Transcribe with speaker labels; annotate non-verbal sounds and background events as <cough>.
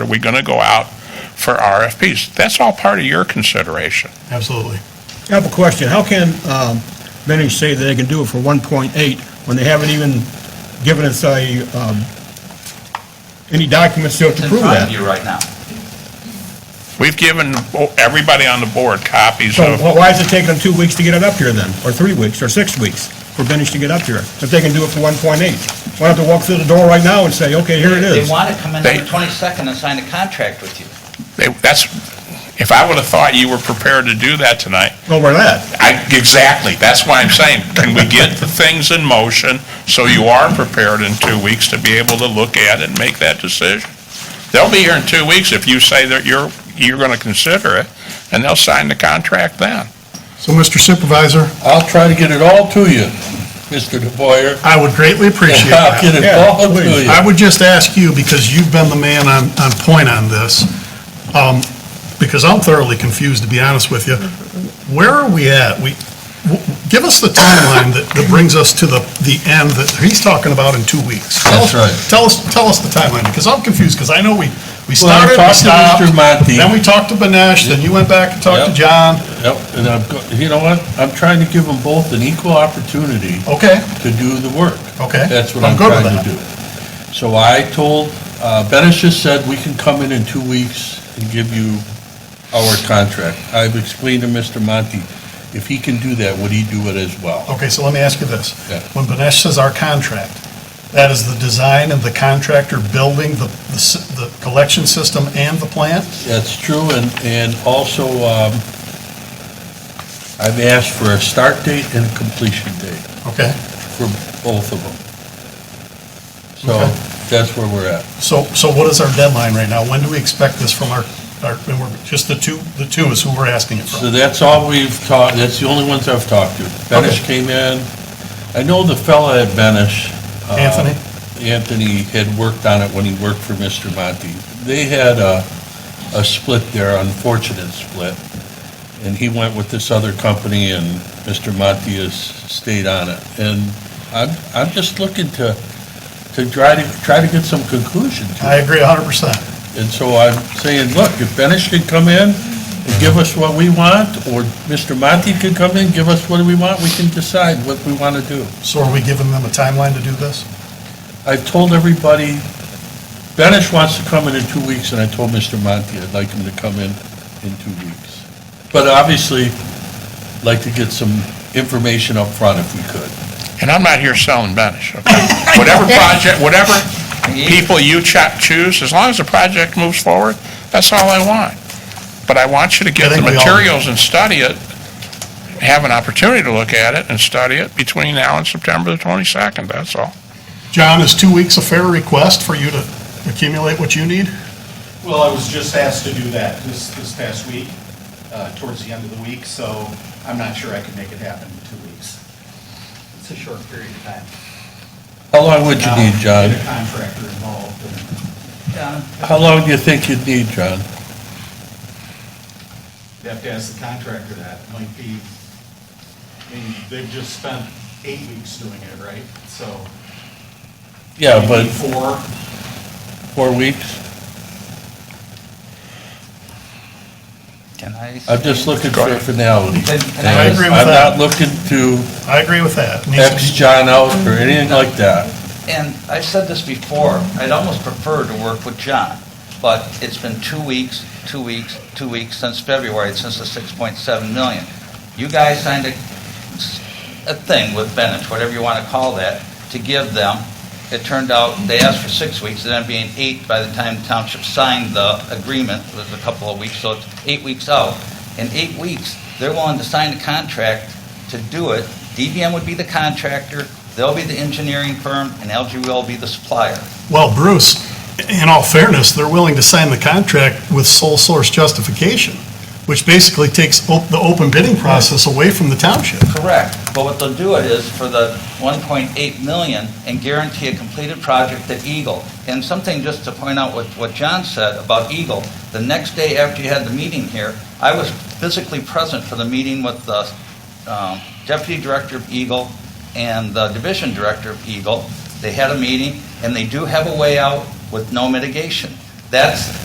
Speaker 1: Are we going to go out for RFPs? That's all part of your consideration.
Speaker 2: Absolutely.
Speaker 3: I have a question. How can um, Benny say that they can do it for 1.8 when they haven't even given us a, um, any documents to
Speaker 4: It's in
Speaker 3: prove
Speaker 4: front of
Speaker 3: that?
Speaker 4: you right now.
Speaker 1: We've given oh, everybody on the board copies
Speaker 3: So
Speaker 1: of,
Speaker 3: wh- why is it taking them two weeks to get it up here then, or three weeks, or six weeks for Benny to get up here? If they can do it for 1.8? Why don't they walk through the door right now and say, okay, here it
Speaker 4: They
Speaker 3: is?
Speaker 4: want to come in
Speaker 1: They-
Speaker 4: on the 22nd and sign a contract with you.
Speaker 1: they- that's, if I would have thought you were prepared to do that tonight,
Speaker 3: Over that?
Speaker 1: I, exactly, that's why I'm saying, can we get the things in motion so you are prepared in two weeks to be able to look at it and make that decision? They'll be here in two weeks if you say that you're, you're going to consider it, and they'll sign the contract then.
Speaker 2: So, Mr. Supervisor,
Speaker 5: I'll try to get it all to you, Mr. DeBoyer.
Speaker 2: I would greatly appreciate
Speaker 5: And <laughs> I'll
Speaker 2: that.
Speaker 5: get it
Speaker 3: Yeah,
Speaker 5: all to
Speaker 3: please.
Speaker 5: you.
Speaker 2: I would just ask you, because you've been the man on, on point on this, um, because I'm thoroughly confused, to be honest with you. Where are we at? We, w- give us the timeline that, that brings us to the, the end that he's talking about in two weeks. Tell us-
Speaker 5: That's right.
Speaker 2: Tell us, tell us the timeline, because I'm confused, because I know we, we
Speaker 5: Well, I
Speaker 2: started, we
Speaker 5: talked to
Speaker 2: stopped.
Speaker 5: Mr. Monti.
Speaker 2: Then we talked to Banesh, then you went back and talked to
Speaker 5: Yep.
Speaker 2: John.
Speaker 5: Yep, and I'm, go- you know what? I'm trying to give them both an equal opportunity
Speaker 2: Okay,
Speaker 5: to do the work.
Speaker 2: Okay.
Speaker 5: That's what
Speaker 2: I'm
Speaker 5: I'm
Speaker 2: good with
Speaker 5: trying to do. So I told, uh, Benish just said we can come in in two weeks and give you our contract. I've explained to Mr. Monti, if he can do that, would he do it as well?
Speaker 2: okay, so let me ask you this.
Speaker 5: Yeah.
Speaker 2: When Banesh says our contract, that is the design and the contractor building the, the s- the collection system and the plant?
Speaker 5: That's true, and, and also, um, I've asked for a start date and a completion date.
Speaker 2: Okay,
Speaker 5: for both of them. So
Speaker 2: Okay.
Speaker 5: that's where we're at.
Speaker 2: so, so what is our deadline right now? When do we expect this from our, our, and we're- just the two, the two is who we're asking it
Speaker 5: So
Speaker 2: from?
Speaker 5: that's all we've talked, that's the only ones I've talked to. Benish came in, I know the fella at Benish. uh,
Speaker 2: Anthony?
Speaker 5: Anthony had worked on it when he worked for Mr. Monty. They had a, a split there, unfortunate split, and he went with this other company, and Mr. Monty has stayed on it. And I'm, I'm just looking to, to try to, try to get some conclusion to it.
Speaker 2: I agree hundred percent.
Speaker 5: And so I'm saying, look, if Benish could come in and give us what we want, or Mr. Monti could come in, give us what we want, we can decide what we want to do.
Speaker 2: So are we giving them a timeline to do this?
Speaker 5: I've told everybody, Benish wants to come in in two weeks, and I told Mr. Monti I'd like him to come in in two weeks. But obviously, like to get some information up front if we could.
Speaker 1: And I'm not here selling Benish,
Speaker 2: <laughs>
Speaker 1: okay? Whatever project, whatever people you cho- choose, as long as the project moves forward, that's all I want. But I want you to
Speaker 2: I
Speaker 1: get the
Speaker 2: think we all do.
Speaker 1: materials and study it, have an opportunity to look at it and study it between now and September the 22nd, that's all.
Speaker 2: John, is two weeks a fair request for you to accumulate what you need?
Speaker 6: Well, I was just asked to do that this, this past week, uh, towards the end of the week, so I'm not sure I could make it happen in two weeks.
Speaker 4: It's a short period of time.
Speaker 5: How long would you need,
Speaker 6: Now,
Speaker 5: John?
Speaker 6: Get a contractor involved and
Speaker 4: John,
Speaker 5: How long do you think you'd need, John?
Speaker 6: you have to ask the contractor that. Might be, I mean, they've just spent eight weeks doing it, right? So.
Speaker 5: Yeah,
Speaker 6: maybe
Speaker 5: but
Speaker 6: Four,
Speaker 5: four weeks?
Speaker 4: can I?
Speaker 5: I'm just looking for finality.
Speaker 4: Then- and I
Speaker 5: And
Speaker 2: agree with
Speaker 5: I'm
Speaker 2: that.
Speaker 5: not looking to
Speaker 2: I agree with that. Needs to be-
Speaker 5: X John out or anything like that.
Speaker 4: And I've said this before, I'd almost prefer to work with John, but it's been two weeks, two weeks, two weeks since February, since the 6.7 million. You guys signed a, a thing with Bennett, whatever you want to call that, to give them. It turned out, they asked for six weeks, it ended up being eight by the time the township signed the agreement, it was a couple of weeks, so it's eight weeks out. In eight weeks, they're willing to sign the contract to do it. DBM would be the contractor, They'll be the engineering firm, and LG will be the supplier.
Speaker 2: Well, Bruce, in all fairness, they're willing to sign the contract with sole source justification, which basically takes op- the open bidding process away from the township.
Speaker 4: Correct. But what they'll do it is for the 1.8 million and guarantee a completed project at Eagle. And something just to point out what, what John said about Eagle, the next day after you had the meeting here, I was physically present for the meeting with the um, deputy director of Eagle and the division director of Eagle. They had a meeting, and they do have a way out with no mitigation. That's